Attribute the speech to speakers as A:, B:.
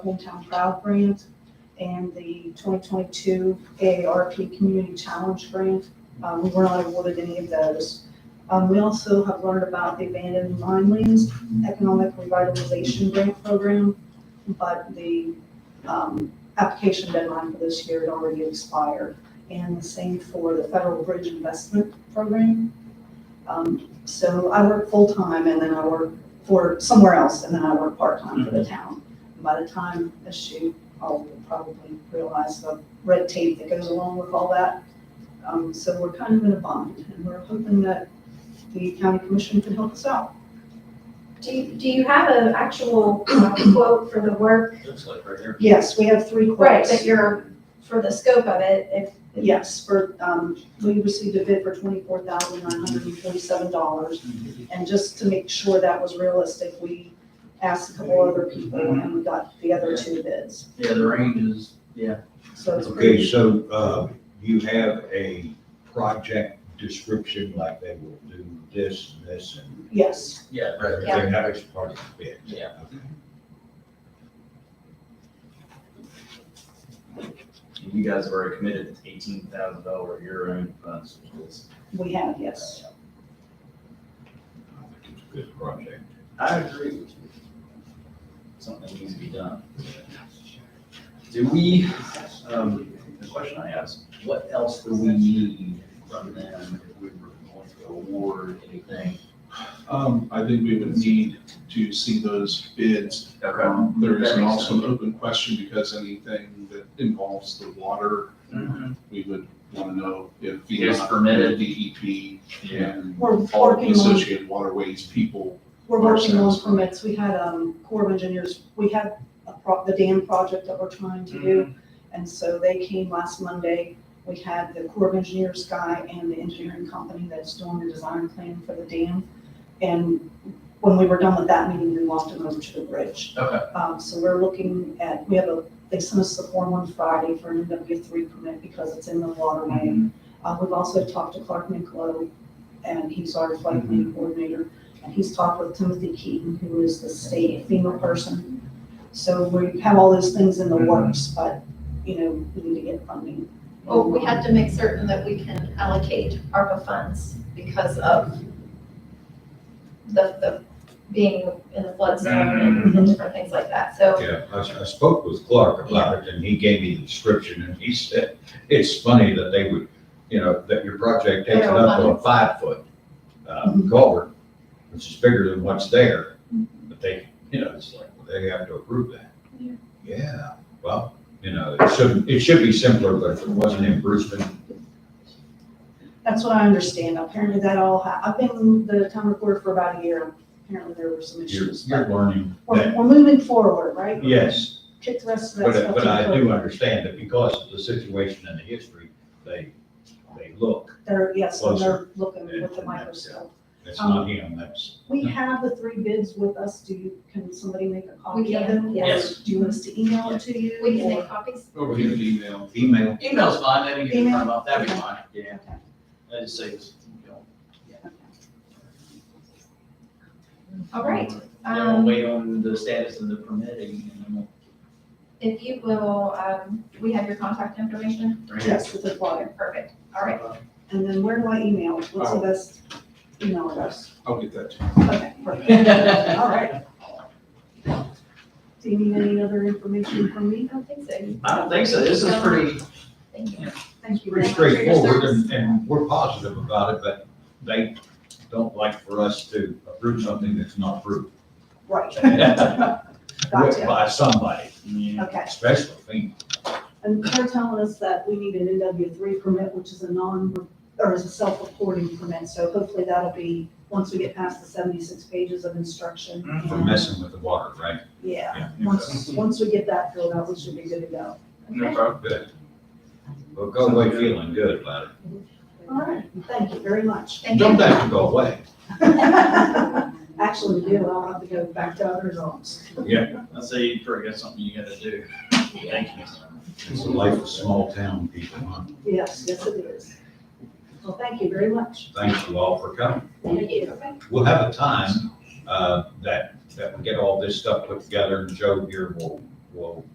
A: Hometown Proud Grant and the 2022 AARP Community Challenge Grant. Uh, We were not awarded any of those. Um, We also have learned about the abandoned mine lands economic revitalization grant program, but the um, application deadline for this year had already expired. And the same for the Federal Bridge Investment Program. Um, So I work full-time and then I work for somewhere else and then I work part-time for the town by the time I shoot, I'll probably realize the red tape that goes along with all that. Um, so we're kind of in a bind, and we're hoping that the county commission can help us out.
B: Do, you- do you have an actual uh, quote for the work?
C: Looks like right here.
A: Yes, we have three
B: Right,
A: quotes.
B: that you're, for the scope of it, if,
A: Yes, for, um, we received a bid for twenty-four thousand nine hundred and forty-seven dollars. And just to make sure that was realistic, we asked a couple other people and we got the other two bids.
C: Yeah, the range is, yeah.
A: So it's
D: Okay,
A: pretty,
D: so, uh, you have a project description, like they will do this, this, and
A: yes,
C: Yeah.
D: that,
B: Yeah.
D: that is part of the bid.
C: Yeah. You guys have already committed eighteen thousand dollar a year in funds. which is-
A: we have, yes.
D: I think it's a good project.
C: I agree with you. Something needs to be done. Do we, um, the question I asked, what else do we need from them if we were going to award anything?
E: Um, I think we would need to see those bids. Um, There is
C: That makes
E: also an open question because anything that involves the water,
C: Mhm.
E: we would want to know if.
C: Is
E: VDOT,
C: permitted.
E: DEP
C: Yeah.
E: E and
A: We're
E: all the
A: working on
E: associated waterways people.
A: We're working on
E: Ourselves.
A: permits, we had, um, Corps of Engineers, we had a pro, the dam project that we're trying to do. And so they came last Monday, we had the Corps of Engineers guy and the engineering company that's doing the design plan for the dam. And when we were done with that meeting, we walked them over to the bridge.
C: Okay.
A: Um, so we're looking at, we have a, they sent us the form on Friday for an MW three permit because it's in the waterway.
C: mm-hmm.
A: Uh, we've also talked to Clark Nicolo, and he's our
D: Mm-hmm.
A: flood plan coordinator, and he's talked with Timothy Keaton, who is the state FEMA person. So we have all those things in the
D: Mm-hmm.
A: works, but, you know, we need to get funding.
B: well, Oh, we have to make certain that we can allocate ARPA funds because of the, the, being in the flood zone and different things like that, so.
D: Yeah, I, I spoke with Clark about it, and he gave me the description, and he said, it's funny that they would, you know, that your project takes
B: They're Mm-hmm.
D: up
B: on-
D: a five-foot, uh,
A: Mhm.
D: culvert, which is bigger than what's there, but they, you know, it's like, well, they have to approve that.
B: Mm-hmm. Yeah.
D: Yeah, well, you know, it should, it should be simpler, but if it wasn't in Brisbane,
A: That's what I understand. Apparently that all, ha- I've been the town reporter for about a year. Apparently there were some
D: you're,
A: issues.
D: you're learning
A: We're,
D: that,
A: we're moving forward, right?
D: yes.
A: Kick the rest of that stuff.
D: But, but
A: to
D: I
A: the-
D: do understand that because of the situation and the history, they, they look,
A: They're, yes, and they're looking
D: And-
A: with the
D: and that's-
A: microscope.
D: it's
B: Um,
D: not him, that's.
A: We have the three bids with us. Do you, can somebody make a
B: We
A: copy of
B: can,
A: them? Or
C: yes.
A: Do you want us to email it to you?
B: We can
A: or-
B: make copies,
E: Over here, email.
D: Email.
C: Email's fine, I didn't get
A: Email?
C: time off, that'd be fine, yeah.
A: Okay.
C: I just say, you know,
B: all right.
C: yeah, we'll
B: Um,
C: wait on the status of the permitting and then
B: If you will, um, we have your contact information?
C: we'll.
A: Yes, with the flyer.
B: Perfect, all right.
A: And then where do I email? What's the
E: Oh.
A: best email address?
E: I'll get that to you.
A: Okay, perfect. All right. Do you need any other information from me?
B: I don't think so.
C: I don't think so, this is pretty,
B: Thank you.
A: Thank you. very
D: Pretty
A: much for your
D: straightforward,
A: service.
D: and, and we're positive about it, but they don't like for us to approve something that's not approved.
A: Right, gotcha.
D: By somebody,
A: Okay.
D: especially me.
A: And they're telling us that we need an NW three permit, which is a non, or is a self-reporting permit. So hopefully that'll be, once we get past the seventy-six pages of instruction.
D: for
A: and-
D: messing with the water, right?
A: Yeah,
D: Yeah.
A: once, once we get that filled out, we should be good to go.
B: Okay.
D: Good. Well, go away feeling good about it.
A: All right, thank you very much.
B: Thank
D: Don't
B: you.
D: have to go away.
A: Actually, we do, I'll have to go back to other zones.
C: I say you probably got something you gotta do. Thank you.
D: It's the life of small town people, huh?
A: Yes, yes, it is. Well, thank you very much.
D: Thank you all for coming.
A: Thank you.
D: We'll have a time, uh, that, that we get all this stuff put together and Joe here will whoa.